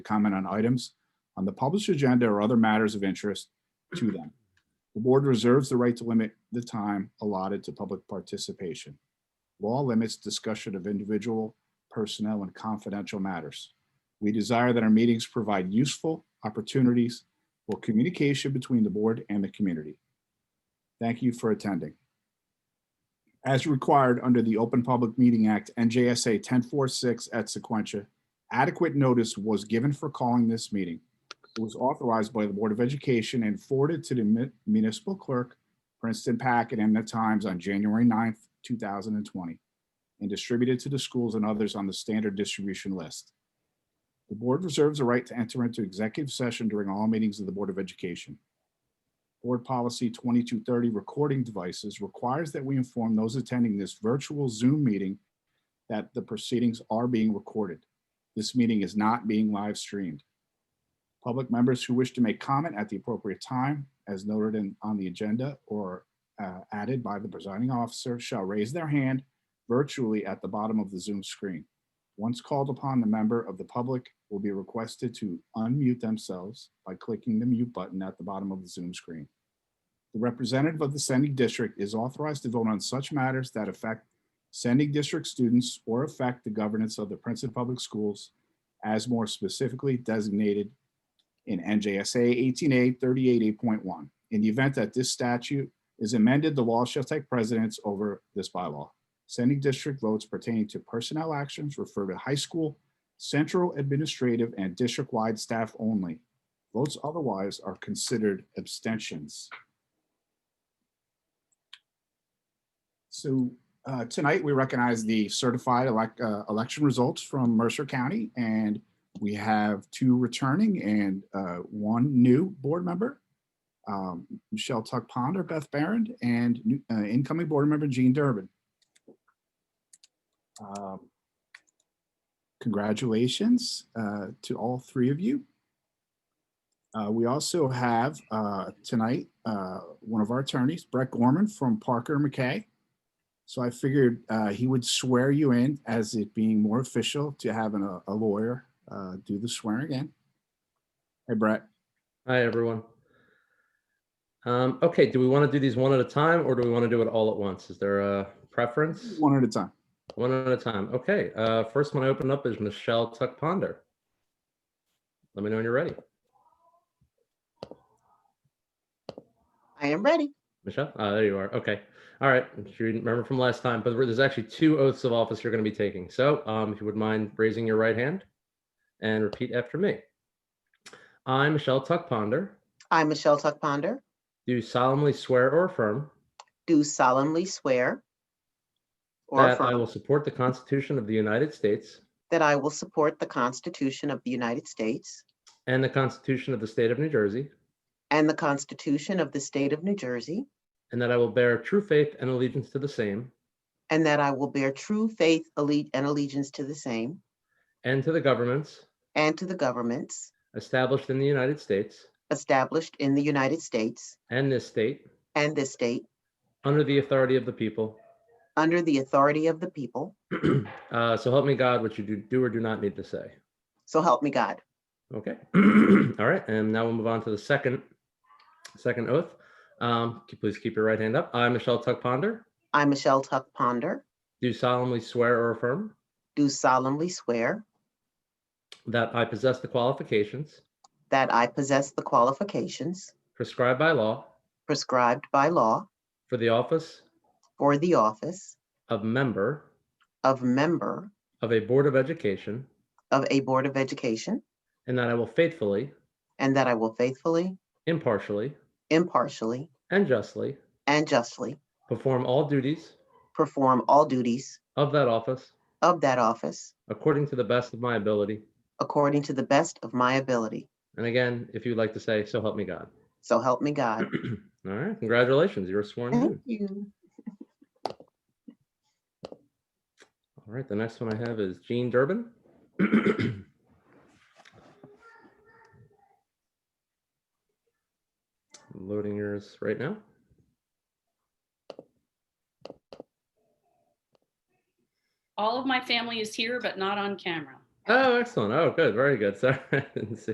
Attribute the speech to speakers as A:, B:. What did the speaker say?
A: comment on items on the published agenda or other matters of interest to them. The board reserves the right to limit the time allotted to public participation. Law limits discussion of individual personnel and confidential matters. We desire that our meetings provide useful opportunities for communication between the board and the community. Thank you for attending. As required under the Open Public Meeting Act, NJSA 1046 at Sequentia, adequate notice was given for calling this meeting. It was authorized by the Board of Education and forwarded to the mi- municipal clerk, Princeton Packet and the Times on January 9th, 2020, and distributed to the schools and others on the standard distribution list. The board reserves the right to enter into executive session during all meetings of the Board of Education. Board Policy 2230 Recording Devices requires that we inform those attending this virtual Zoom meeting that the proceedings are being recorded. This meeting is not being live streamed. Public members who wish to make comment at the appropriate time, as noted in, on the agenda or uh, added by the presiding officer, shall raise their hand virtually at the bottom of the Zoom screen. Once called upon, the member of the public will be requested to unmute themselves by clicking the mute button at the bottom of the Zoom screen. The representative of the sending district is authorized to vote on such matters that affect sending district students or affect the governance of the Princeton Public Schools as more specifically designated in NJSA 18A 38.8.1. In the event that this statute is amended, the law shall take precedence over this bylaw. Sending district votes pertaining to personnel actions refer to high school, central administrative, and district-wide staff only. Votes otherwise are considered abstentions. So uh, tonight, we recognize the certified elec- uh, election results from Mercer County, and we have two returning and uh, one new board member. um, Michelle Tuck Ponder, Beth Barron, and new- uh, incoming board member Jean Durbin. Um, Congratulations uh, to all three of you. Uh, We also have uh, tonight, uh, one of our attorneys, Brett Gorman from Parker McKay. So I figured uh, he would swear you in as it being more official to having a- a lawyer uh, do the swearing in. Hey Brett,
B: Hi, everyone. Um, okay, do we want to do these one at a time or do we want to do it all at once? Is there a preference?
A: one at a time.
B: One at a time. Okay, uh, first one I open up is Michelle Tuck Ponder. Let me know when you're ready.
C: I am ready.
B: Michelle, uh, there you are. Okay. All right. If you didn't remember from last time, but there's actually two oaths of office you're going to be taking. So um, if you would mind raising your right hand and repeat after me. I, Michelle Tuck Ponder,
C: I, Michelle Tuck Ponder,
B: do solemnly swear or affirm
C: do solemnly swear or
B: that I will
C: affirm
B: support the Constitution of the United States
C: that I will support the Constitution of the United States
B: and the Constitution of the State of New Jersey,
C: and the Constitution of the State of New Jersey,
B: and that I will bear true faith and allegiance to the same
C: and that I will bear true faith alle- and allegiance to the same
B: and to the governments
C: and to the governments
B: established in the United States
C: established in the United States
B: and this state
C: and this state
B: under the authority of the people.
C: under the authority of the people.
B: uh, so help me God, what you do, do or do not need to say.
C: So help me God.
B: Okay. All right. And now we'll move on to the second second oath. Um, c- please keep your right hand up. I, Michelle Tuck Ponder,
C: I, Michelle Tuck Ponder,
B: do solemnly swear or affirm
C: do solemnly swear
B: that I possess the qualifications
C: that I possess the qualifications
B: prescribed by law
C: prescribed by law
B: for the office
C: for the office
B: of member
C: of member
B: of a Board of Education,
C: of a Board of Education,
B: and that I will faithfully,
C: and that I will faithfully,
B: impartially,
C: impartially,
B: and justly
C: and justly
B: perform all duties
C: perform all duties
B: of that office
C: of that office
B: according to the best of my ability.
C: according to the best of my ability.
B: And again, if you'd like to say, so help me God.
C: So help me God.
B: All right, congratulations, you're sworn in.
C: Thank you.
B: All right, the next one I have is Jean Durbin. Loading yours right now.
D: All of my family is here, but not on camera.
B: Oh, excellent. Oh, good. Very good. Sorry. I didn't see.